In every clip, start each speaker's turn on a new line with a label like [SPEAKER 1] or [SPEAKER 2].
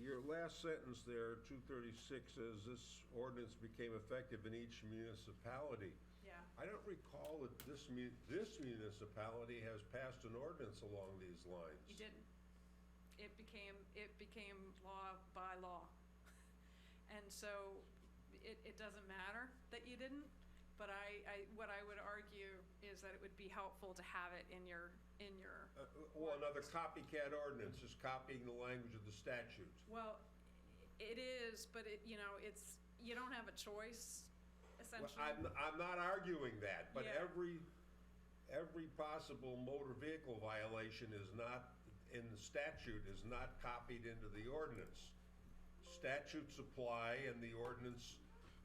[SPEAKER 1] your last sentence there, two thirty-six, says this ordinance became effective in each municipality.
[SPEAKER 2] Yeah.
[SPEAKER 1] I don't recall that this mu- this municipality has passed an ordinance along these lines.
[SPEAKER 2] You didn't. It became, it became law by law. And so it, it doesn't matter that you didn't, but I, I, what I would argue is that it would be helpful to have it in your, in your,
[SPEAKER 1] Uh, Well, another copycat ordinance is copying the language of the statute.
[SPEAKER 2] well, it is, but it, you know, it's, you don't have a choice
[SPEAKER 1] Well,
[SPEAKER 2] essentially.
[SPEAKER 1] I'm, I'm not arguing that, but
[SPEAKER 2] Yeah.
[SPEAKER 1] every, every possible motor vehicle violation is not, in the statute, is not copied into the ordinance. Statutes apply and the ordinance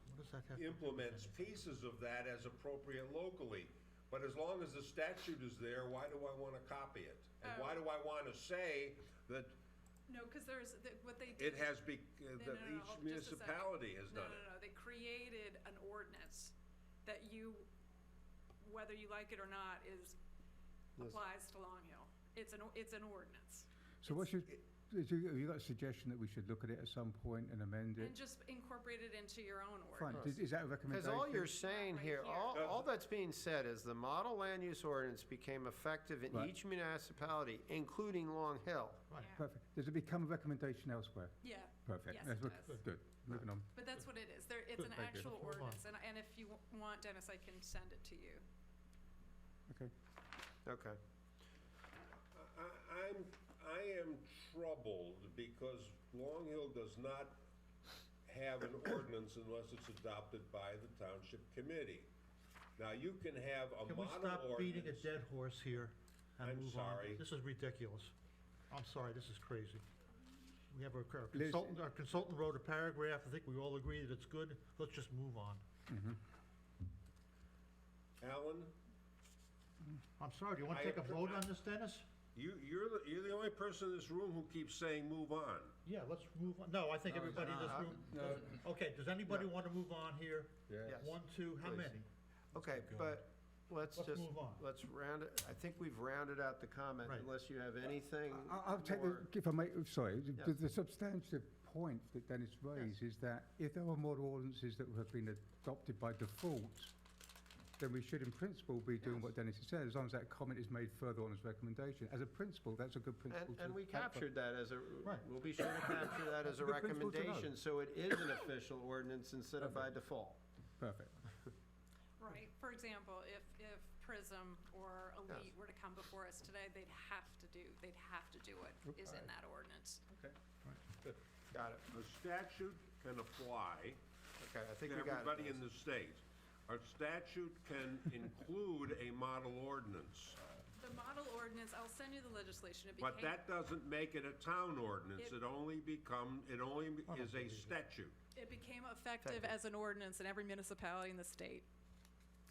[SPEAKER 3] What does that have?
[SPEAKER 1] implements pieces of that as appropriate locally. But as long as the statute is there, why do I wanna copy it? And why do
[SPEAKER 2] Oh.
[SPEAKER 1] I wanna say that
[SPEAKER 2] No, cause there's, the- what they did.
[SPEAKER 1] it has be, uh,
[SPEAKER 2] No,
[SPEAKER 1] that
[SPEAKER 2] no, no,
[SPEAKER 1] each
[SPEAKER 2] hold- just a second.
[SPEAKER 1] municipality has
[SPEAKER 2] No,
[SPEAKER 1] done
[SPEAKER 2] no,
[SPEAKER 1] it?
[SPEAKER 2] no, they created an ordinance that you, whether you like it or not, is, applies to Long Hill. It's an, o- it's an ordinance.
[SPEAKER 3] So what should, is you, have you got a suggestion that we should look at it at some point and amend
[SPEAKER 2] And
[SPEAKER 3] it?
[SPEAKER 2] just incorporate it into your own
[SPEAKER 3] Fine,
[SPEAKER 2] ordinance.
[SPEAKER 3] is, is that a
[SPEAKER 4] Because
[SPEAKER 3] recommendation?
[SPEAKER 4] all you're saying
[SPEAKER 2] Right
[SPEAKER 4] here,
[SPEAKER 2] here.
[SPEAKER 5] Oh.
[SPEAKER 4] all, all that's being said is the model land use ordinance became effective in
[SPEAKER 3] Right.
[SPEAKER 4] each municipality, including Long Hill.
[SPEAKER 3] Right,
[SPEAKER 2] Yeah.
[SPEAKER 3] perfect. Does it become a recommendation elsewhere?
[SPEAKER 2] Yeah,
[SPEAKER 3] Perfect.
[SPEAKER 2] Yes,
[SPEAKER 3] Let's
[SPEAKER 2] it
[SPEAKER 3] look-
[SPEAKER 2] does.
[SPEAKER 3] Good, moving on.
[SPEAKER 2] but that's what it is. There, it's an
[SPEAKER 3] Thank you.
[SPEAKER 2] actual
[SPEAKER 3] Move on.
[SPEAKER 2] ordinance, and, and if you w- want, Dennis, I can send it to you.
[SPEAKER 4] Okay.
[SPEAKER 1] I, I'm, I am troubled because Long Hill does not have an ordinance unless it's adopted by the township committee. Now, you can have a
[SPEAKER 5] Can we
[SPEAKER 1] model
[SPEAKER 5] stop beating a
[SPEAKER 1] ordinance.
[SPEAKER 5] dead horse here
[SPEAKER 1] I'm
[SPEAKER 5] and move on?
[SPEAKER 1] sorry.
[SPEAKER 5] This is ridiculous. I'm sorry, this is crazy. We have our our
[SPEAKER 3] Liz-
[SPEAKER 5] consultant, our consultant wrote a paragraph, I think we all agree that it's good, let's just move on.
[SPEAKER 1] Alan,
[SPEAKER 5] I'm sorry, do you want
[SPEAKER 1] I
[SPEAKER 5] to take a
[SPEAKER 1] appro-
[SPEAKER 5] vote on this, Dennis?
[SPEAKER 1] you, you're, the- you're the only person in this room who keeps saying move on.
[SPEAKER 5] Yeah, let's move on, no, I think everybody in this
[SPEAKER 4] not.
[SPEAKER 5] room, does- okay, does anybody want to move on here?
[SPEAKER 4] Yes.
[SPEAKER 5] One, two, how
[SPEAKER 4] Please.
[SPEAKER 5] many?
[SPEAKER 4] Okay, but let's
[SPEAKER 5] Let's
[SPEAKER 4] just,
[SPEAKER 5] move on.
[SPEAKER 4] let's round it, I think we've rounded out the comment
[SPEAKER 5] Right.
[SPEAKER 4] unless you have anything
[SPEAKER 3] I- I'll take, the-
[SPEAKER 4] Uh, more.
[SPEAKER 3] if I may, oh, sorry, the-
[SPEAKER 4] Yeah.
[SPEAKER 3] the, the substantive point that Dennis raised is that if there are more ordinances that have been adopted by default, then we should in principle be doing what Dennis has said, as long as that comment is made further on as recommendation. As a principle, that's a good
[SPEAKER 4] And,
[SPEAKER 3] principle to.
[SPEAKER 4] and we
[SPEAKER 3] act by.
[SPEAKER 4] captured that as a,
[SPEAKER 5] Right.
[SPEAKER 4] we'll be sure to capture that as a
[SPEAKER 3] Good principle to know.
[SPEAKER 4] recommendation, so it is an official ordinance instead of by default.
[SPEAKER 3] Perfect.
[SPEAKER 2] Right, for example, if, if Prism or Elite were to come before us today, they'd have to do, they'd have to do it, is in
[SPEAKER 1] Okay.
[SPEAKER 2] that ordinance.
[SPEAKER 4] Got it,
[SPEAKER 1] The statute can apply
[SPEAKER 4] okay, I think
[SPEAKER 1] to
[SPEAKER 4] we got it.
[SPEAKER 1] everybody
[SPEAKER 4] Dennis.
[SPEAKER 1] in the state. Our statute can include a model ordinance,
[SPEAKER 2] The model ordinance, I'll send you the legislation. It became.
[SPEAKER 1] but that doesn't make it a town ordinance. It
[SPEAKER 2] It-
[SPEAKER 1] only become, it only is a statute.
[SPEAKER 2] It became effective as an ordinance in every municipality in the state.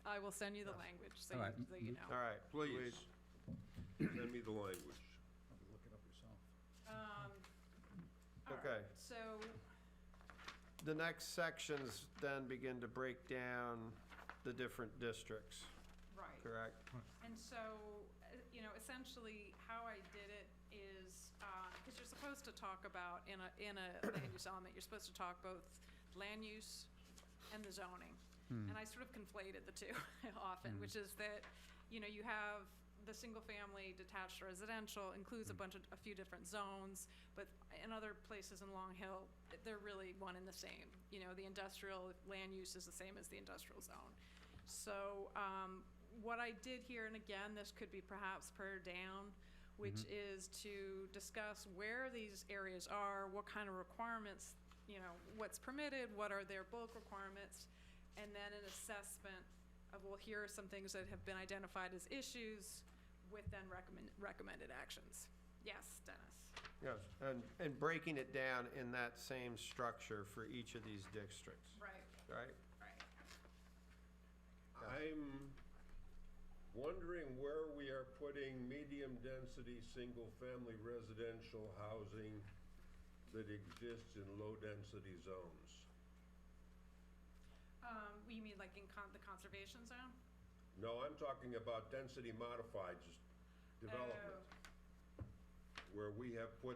[SPEAKER 2] I will send you the language so
[SPEAKER 3] All
[SPEAKER 2] you,
[SPEAKER 3] right.
[SPEAKER 2] so you know.
[SPEAKER 4] All right.
[SPEAKER 1] Please, send me the language.
[SPEAKER 2] Um, all right.
[SPEAKER 4] Okay.
[SPEAKER 2] So,
[SPEAKER 4] The next sections then begin to break down the different districts,
[SPEAKER 2] right.
[SPEAKER 4] correct?
[SPEAKER 2] And so, uh, you know, essentially how I did it is, because you're supposed to talk about, in a, in a land use element, you're supposed to talk both land use and the zoning. And I sort of conflated the two often, which is that, you know, you have the single-family detached residential includes a bunch of, a few different zones, but in other places in Long Hill, they're really one and the same. You know, the industrial land use is the same as the industrial zone. So, um, what I did here, and again, this could be perhaps pared down, which is to discuss where these areas are, what kind of requirements, you know, what's permitted, what are their bulk requirements, and then an assessment of, well, here are some things that have been identified as issues with then recommend, recommended actions. Yes, Dennis?
[SPEAKER 4] Yes, and, and breaking it down in that same structure for each of these districts,
[SPEAKER 2] Right,
[SPEAKER 4] right?
[SPEAKER 2] right.
[SPEAKER 1] I'm wondering where we are putting medium-density, single-family residential housing that exists in low-density zones.
[SPEAKER 2] Um, you mean like in con, the conservation zone?
[SPEAKER 1] No, I'm talking about density modified s- development, where we have put